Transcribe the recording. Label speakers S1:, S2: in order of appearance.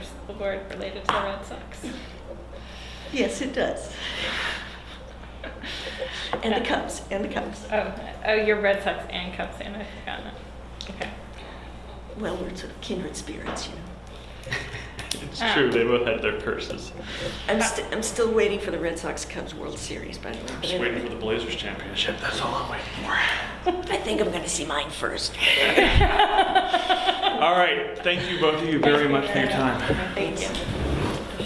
S1: the word related to the Red Sox.
S2: Yes, it does. And the Cubs, and the Cubs.
S1: Oh, oh, you're Red Sox and Cubs fan. I've forgotten it. Okay.
S2: Well, we're sort of kindred spirits, you know.
S3: It's
S1: Ah.
S3: true, they both had their curses.
S2: I'm, st- I'm still waiting for the Red Sox Cubs World Series, by the way.
S3: I'm just waiting for the Blazers championship, that's all I'm waiting for.
S2: I think I'm going to see mine first.
S3: All right, thank you both of you very much for your time.
S1: Thank you.